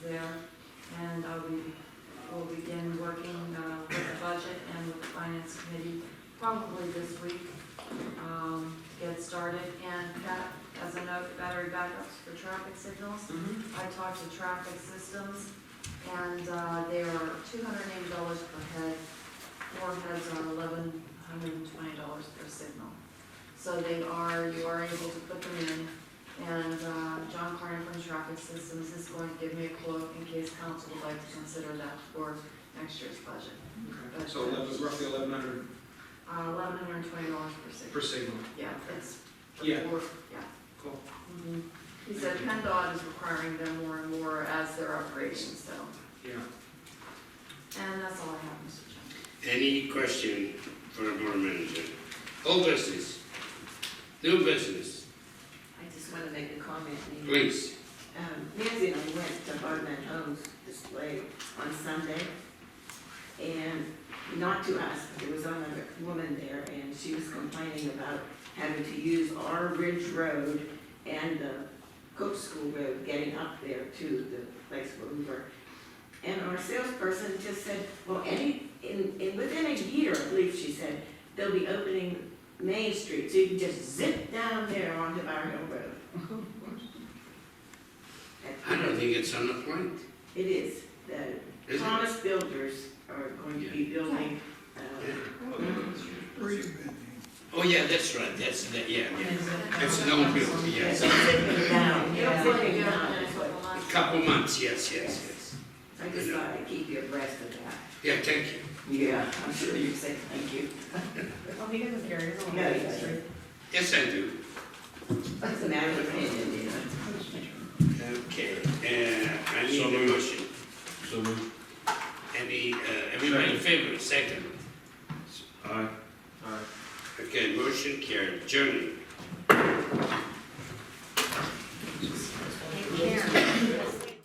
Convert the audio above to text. uh, we will begin working uh, with the budget and with the finance committee probably this week, um, to get started. And that, as a note, battery backups for traffic signals. Mhm. I talked to Traffic Systems, and uh, they are two hundred and eighty dollars per head. Four heads are eleven hundred and twenty dollars per signal. So they are, you are able to put them in, and uh, John Carney from Traffic Systems is going to give me a quote in case council would like to consider that for next year's budget. Uh, Okay. So eleven- roughly eleven hundred Eleven hundred and twenty dollars per per signal. signal. Yeah, it's for Yeah. four, yeah. Cool. Mhm. He said PennDOT is requiring them more and more as they're upgrading, so, Yeah. and that's all I have, Mr. Chairman. Any question for the board manager? Old business, new business, I just want to make a comment. Nancy. please. Um, Nancy and I went to Hardman Homes display on Sunday. And not to us, but there was another woman there and she was complaining about having to use our Ridge Road and the Cook School Road getting up there to the place where we were. And our salesperson just said, well, any, in, in, within a year, I believe she said, they'll be opening Main Street, so you can just zip down there onto Bar Hill Road. I don't think it's on the point, It is, the is it? Thomas Builders are going to be building, uh, Where you been? Oh, yeah, that's right, that's, that, yeah, yeah. It's no known building, yes. A zipping down, you Yeah, know, we're gonna zipping go down, in a that's what- couple months. Couple months, yes, yes, yes. I just thought I'd keep you abreast of that. Yeah, thank you. Yeah, I'm sure you'd say thank you. Well, he doesn't care, he's No, he doesn't. Yes, I do. That's a matter of opinion, you know. Okay, uh, I need a motion. So moved. Any, uh, everybody in favor, second? Aye. Aye. Okay, motion carried, Journey.